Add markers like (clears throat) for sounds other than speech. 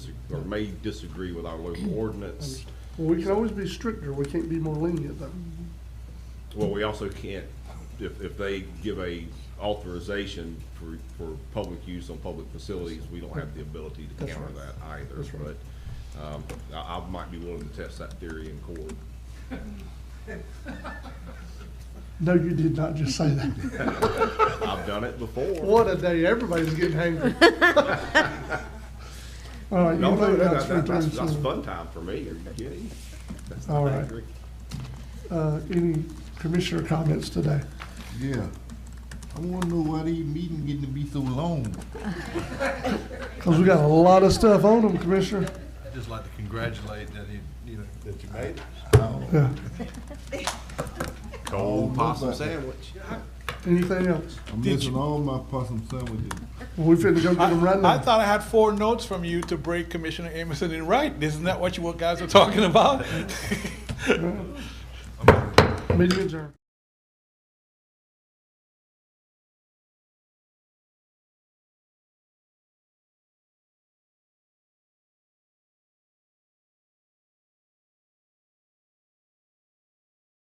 or may disagree with our (clears throat) local ordinance. Well, we can always be stricter, we can't be more lenient though. Well, we also can't, if, if they give a authorization for, for public use on public facilities, we don't have the ability to That's counter right. that either. That's right. But, um, I, I might be willing to test that theory in court. No, you did not just say that. I've done it before. (laughs) What a day, everybody's getting hangry. (laughs) All right, you No, no, vote no, out that- three that- that's, times. that's so, fun time for me, are you kidding? That's All not right. angry. Uh, any commissioner comments today? Yeah. I wanna know why these meetings getting to be so long. Cause we got a lot of stuff on them, Commissioner. I'd just like to congratulate that you, you know, that you made it. Yeah, Oh, Cold possum sandwich. anything else? I'm missing all my possum sandwiches. We finna go get them right I now. thought I had four notes from you to break Commissioner Amerson in right. Isn't that what you guys were talking about? Meeting adjourned.